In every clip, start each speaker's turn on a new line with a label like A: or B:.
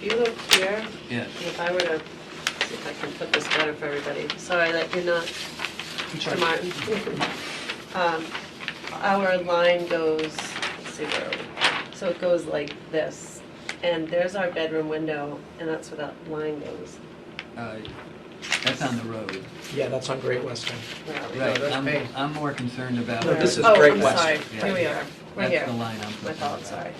A: If you look here,
B: Yes.
A: if I were to, see if I can put this better for everybody, sorry that you're not, Mr. Martin. Um, Our line goes, let's see where, are we? so it goes like this, and there's our bedroom window, and that's where that line goes.
B: Uh, That's on the road.
C: Yeah, that's on Great Western.
A: Where are we?
B: Right,
D: that's
B: I'm,
D: paved.
B: I'm more concerned about.
C: No, this is
A: Oh,
C: Great
A: I'm
C: West.
A: sorry,
B: Yeah.
A: here we are, we're
B: That's the
A: here,
B: line I'm concerned
A: my
B: about.
A: fault, sorry.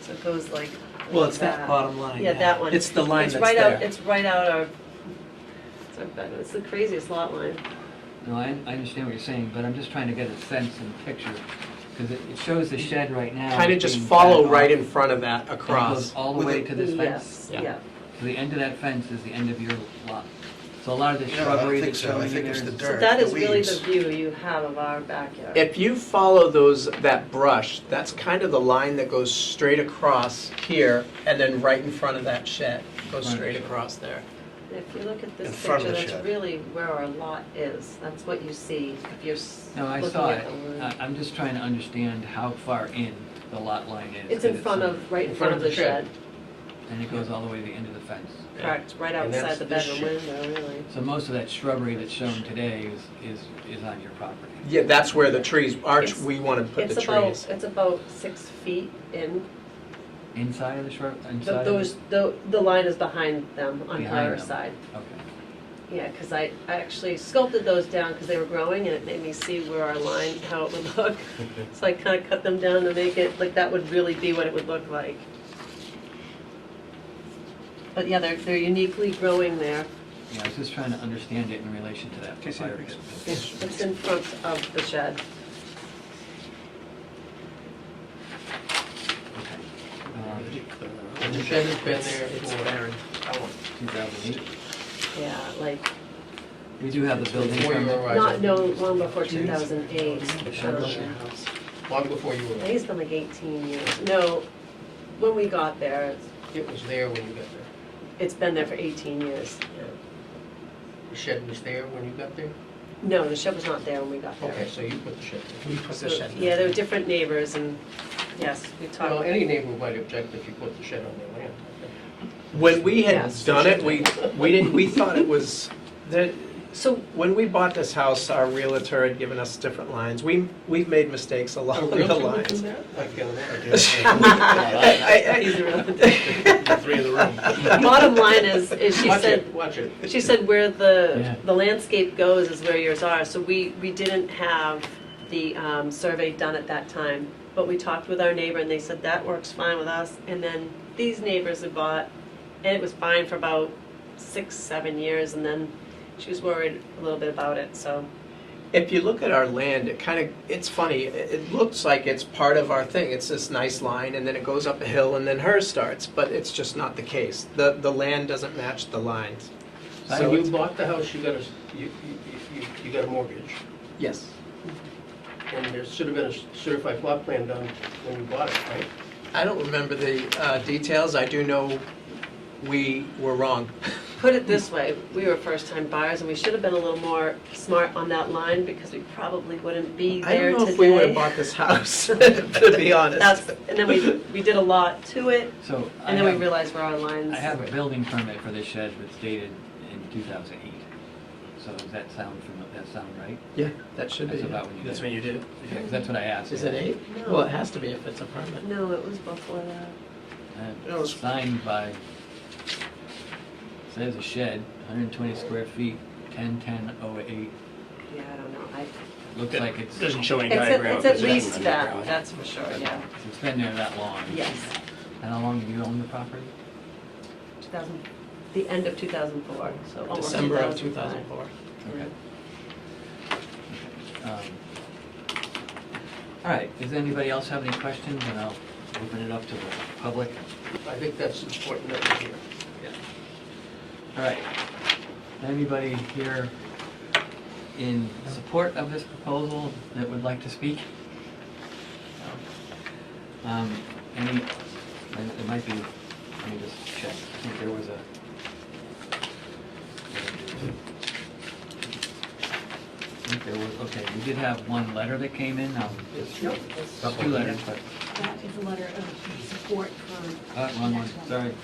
A: So it goes like like
C: Well, it's that bottom line.
A: Yeah, that one.
C: It's the line
A: It's
C: that's
A: right out,
C: there.
A: it's right out our, it's our bedroom, it's the craziest lot line.
B: No, I, I understand what you're saying, but I'm just trying to get a sense and picture, because it, it shows the shed right now.
C: Kind of just
B: being
C: follow
B: back
C: right
B: on,
C: in front of that
B: and it goes
C: across.
B: All the
D: With
B: way
D: it-
B: to this fence?
A: Yes,
C: Yeah.
A: yeah.
B: So the end of that fence is the end of your lot. So a lot of the
D: Yeah, I don't
B: shrubbery
D: think
B: that's
D: so. I
B: showing in
D: think
B: there
D: it's
B: is.
D: the dirt.
A: So that
D: the
A: is really the
D: weeds.
A: view you have of our backyard.
C: If you follow those, that brush, that's kind of the line that goes straight across here and then right in front of that shed, goes
B: Right.
C: straight across there.
A: If you look at
D: In
A: this
D: front of
A: picture,
D: the
A: that's
D: shed.
A: really where our lot is. That's what you see if you're s-
B: No, I
A: looking
B: saw
A: at
B: it. Uh,
A: the
B: I,
A: line.
B: I'm just trying to understand how far in the lot line is.
A: It's
B: 'cause
A: in front of, right in front of the shed.
B: And it goes all the way to the end of the fence.
C: Yeah.
A: Correct, right
D: And
A: outside
D: that's
A: the
D: this
A: bedroom window, really.
B: So most of that shrubbery that's shown today is, is, is on your property.
C: Yeah, that's where the trees, arch,
A: It's-
C: we want to put the
A: It's about,
C: trees.
A: it's about six feet in.
B: Inside of the shrub,
A: Th-
B: inside? of the-
A: Those, the, the line is behind them on
B: Behind
A: our
B: them.
A: side.
B: Okay.
A: Yeah, because I I actually sculpted those down because they were growing and it made me see where our line, how it would look. So I kind of cut them down to make it, like that would really be what it would look like. But yeah, they're, they're uniquely growing there.
B: Yeah, I was just trying to understand it in relation to that
C: Okay, so
B: fire
C: it's-
B: pit.
A: It's it's in front of the shed.
B: Um,
C: And the shed has been there for, how long?
B: 2008.
A: Yeah, like,
B: We do have the building
D: before you were
B: permit.
D: arrived.
A: not, no, long before 2008. Um,
D: Long before you were,
A: I think it's been like 18 years. No, when we got there, it's-
D: it was there when you got there.
A: it's been there for 18 years.
D: The shed was there when you got there?
A: No, the shed was not there when we got there.
D: Okay, so you put the shed there.
C: We put the shed.
A: Yeah, there were different neighbors and, yes, we
D: Well,
A: talked.
D: any neighbor might object if you put the shed on their land.
C: When we had
A: Yes.
C: done it, we, we didn't, we thought it was, that,
A: So,
C: When we bought this house, our realtor had given us different lines. We, we've made mistakes
D: A
C: along the
D: realtor would do
C: lines.
D: that? I feel
C: I-
D: that.
C: I- I-
A: He's a realtor.
E: Three in the room.
A: bottom line is, is she
D: Watch
A: said,
D: it, watch it.
A: she said where the,
B: Yeah.
A: the landscape goes is where yours are. So we, we didn't have the um, survey done at that time. But we talked with our neighbor and they said that works fine with us. And then these neighbors had bought, and it was fine for about six, seven years. And then she was worried a little bit about it, so.
C: If you look at our land, it kind of, it's funny, it it looks like it's part of our thing. It's this nice line and then it goes up a hill and then hers starts, but it's just not the case. The, the land doesn't match the lines.
D: So
C: So
D: you
C: it's-
D: bought the house, you got a, s- you, you, you- you got a mortgage,
C: Yes.
D: and there should have been a s- certified plot plan done when you bought it, right?
C: I don't remember the uh, details. I do know we were wrong.
A: Put it this way, we were first-time buyers, and we should have been a little more smart on that line, because we probably wouldn't be
C: I
A: there today.
C: don't know if we would have bought this house, to be honest.
A: That's, and then we, we did a lot to it,
B: So I
A: and then we
B: have,
A: realized where our lines.
B: I have a building permit for this shed that's dated in 2008. So does that sound, fami- that sound right?
C: Yeah, that should be.
B: That's
C: it.
B: about when you did
E: That's
B: it.
E: when you did it.
B: Yeah, 'cause That's what I asked.
C: Is it eight?
A: No.
C: Well, it has to be if it's a permit.
A: No, it was before that.
B: Uh,
C: That was-
B: Signed by, says a shed, 120 square feet, 101008.
A: Yeah, I don't know, I,
B: Looks
E: That
B: like it's,
E: Doesn't show any
A: it's, at-
E: diagram.
A: it's at
E: Doesn't have
A: least
E: any
A: that,
E: diagram.
A: that's for sure, yeah,
B: it's been there that long.
A: yes,
B: And how long have you owned the property?
A: two thousand, the end of two thousand four,
B: Oh,
A: so almost
C: December of
A: 2005.
C: 2004.
A: Mm-hmm.
B: Okay. Um, All right, does anybody else have any questions? And I'll open it up to the public.
D: I think that's important that we hear.
B: All right. Anybody here in support of this proposal that would like to speak? Um, Any, and it might be, let me just check. I think there was a. I think there was, okay, we did have one letter that came in. um, Two letters, but,
F: That is a letter of support for.
B: uh, wrong Uh, one, sorry.